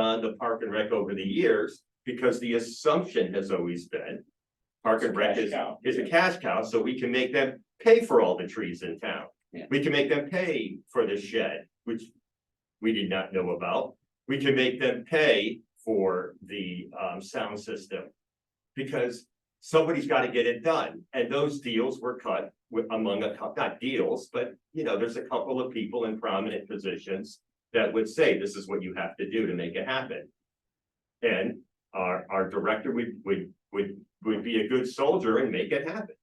done to Park and Rec over the years, because the assumption has always been. Park and Rec is, is a cash cow, so we can make them pay for all the trees in town. Yeah. We can make them pay for the shed, which we did not know about. We can make them pay for the um sound system. Because somebody's gotta get it done, and those deals were cut with among a couple, not deals, but you know, there's a couple of people in prominent positions. That would say this is what you have to do to make it happen. And our our director would would would would be a good soldier and make it happen.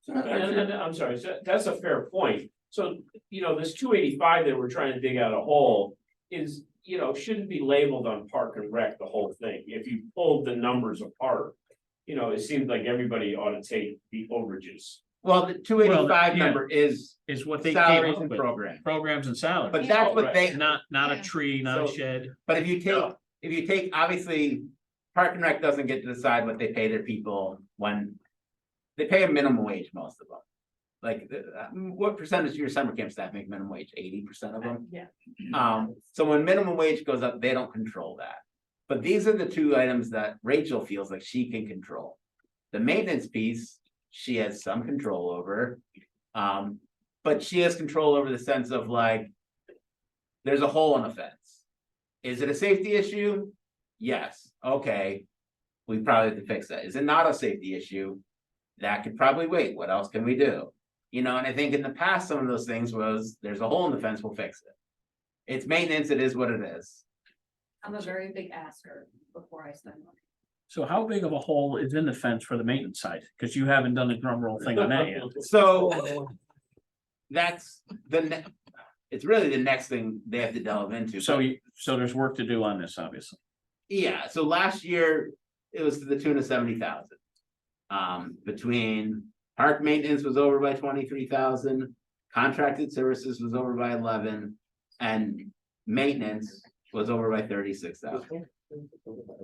So And, that's and- your- and I'm sorry, so that's a fair point. So, you know, this two eighty-five that we're trying to dig out a hole is, you know, shouldn't be labeled on Park and Rec, the whole thing. If you pulled the numbers apart, you know, it seems like everybody ought to take the overages. Well, the two eighty-five yeah. number is is what they came salaries up and with, programs, programs and salaries, but that's what Right. they, not, not Yeah. a tree, not a So- shed. but if you take, No. if you take, obviously, Park and Rec doesn't get to decide what they pay their people when. They pay a minimum wage, most of them. Like, uh, what percentage of your summer camp staff make minimum wage? Eighty percent of them? Yeah. Um, so when minimum wage goes up, they don't control that. But these are the two items that Rachel feels like she can control. The maintenance piece, she has some control over. Um, but she has control over the sense of like. There's a hole in the fence. Is it a safety issue? Yes, okay. We probably have to fix that. Is it not a safety issue? That could probably wait. What else can we do? You know, and I think in the past, some of those things was, there's a hole in the fence, we'll fix it. It's maintenance, it is what it is. I'm a very big asker before I spend money. So how big of a hole is in the fence for the maintenance side? Cause you haven't done the drum roll thing on that yet. So. That's the ne- it's really the next thing they have to delve into. So you, so there's work to do on this, obviously. Yeah, so last year, it was to the tune of seventy thousand. Um, between park maintenance was over by twenty-three thousand, contracted services was over by eleven. And maintenance was over by thirty-six thousand.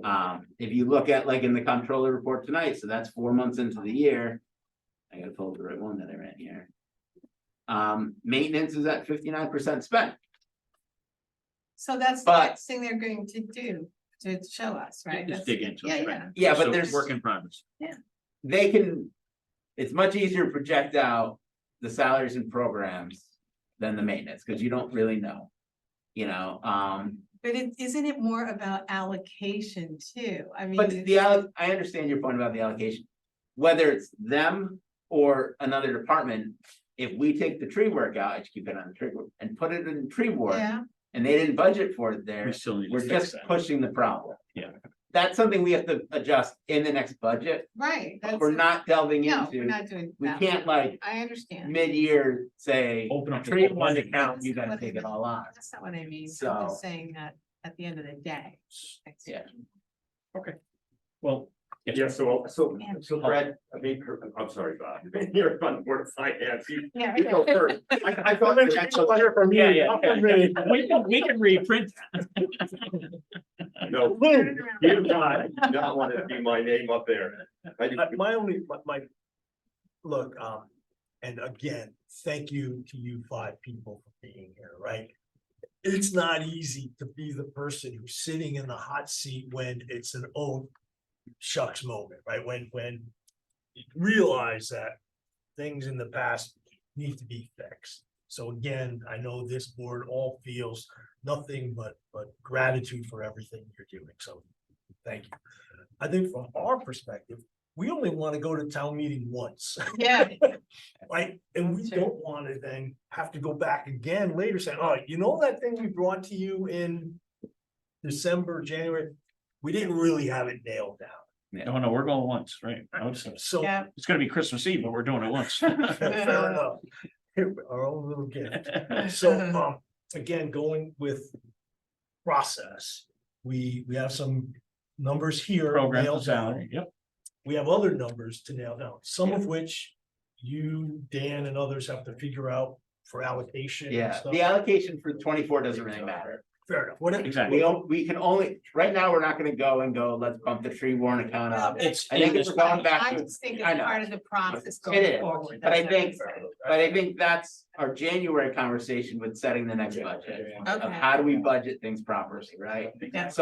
Um, if you look at like in the comptroller report tonight, so that's four months into the year. I gotta pull up the right one that I ran here. Um, maintenance is at fifty-nine percent spent, So that's the But- next thing they're going to do, to show us, right? Just That's- dig into Yeah, it. yeah. yeah, So but there's. Work in progress. they can, it's much easier to project out the salaries and programs than the maintenance, because you don't really know. You know, um, But it, isn't it more about allocation too? I mean. but it's- the, alloc- I understand your point about the allocation. Whether it's them or another department, if we take the tree work out, I should keep it on the tree work, and put it in tree work, Yeah, and they didn't budget for it there. We still need to We're fix just that. pushing the problem. Yeah. That's something we have to adjust in the next budget, right. but that's we're a- not delving No, we're into, not doing we that. can't like I understand. mid-year say. Open up. the Tree whole one thing. account, you gotta take it all on. That's not what I mean. I'm So- just saying that at the end of the day. it's- Yeah. Well, Yeah, so, so, Yeah. so Brad, I mean, I'm sorry, Bob, you're on board of finance, you Yeah. you go first. I, I thought. yeah, yeah, yeah. We can, we can reprint. No, Turn it around. you not, not want to see my name up there. I do- Uh, my only, my, my. Look, um, and again, thank you to you five people for being here, right? It's not easy to be the person who's sitting in the hot seat when it's an oh shucks moment, right? When, when. you Realize that things in the past need to be fixed. So again, I know this board all feels nothing but, but gratitude for everything you're doing, so thank you. I think from our perspective, we only want to go to town meeting once, Yeah, right? And we Sure. don't want to then have to go back again later saying, oh, you know that thing we brought to you in December, January? We didn't really have it nailed down. No, no, we're going once, right? I would say. So yeah. It's gonna be Christmas Eve, but we're doing it once. fair enough. Our own little gift. So, um, again, going with process, we, we have some numbers here Program and nailed down. salary, yep. we have other numbers to nail down, some of which you, Dan and others have to figure out for allocation. and Yeah, stuff. the allocation for twenty-four doesn't really matter. Fair enough, whatever. Exactly. We don't, we can only, right now, we're not gonna go and go, let's bump the tree warrant account up. It's. I think in uh, it's this- going back I to, just think I it's know. part of the process It going is, forward. but I that's what I'm think- saying. but I think that's our January conversation with setting the next budget. Of Okay. how do we budget things properly, right? Yeah. So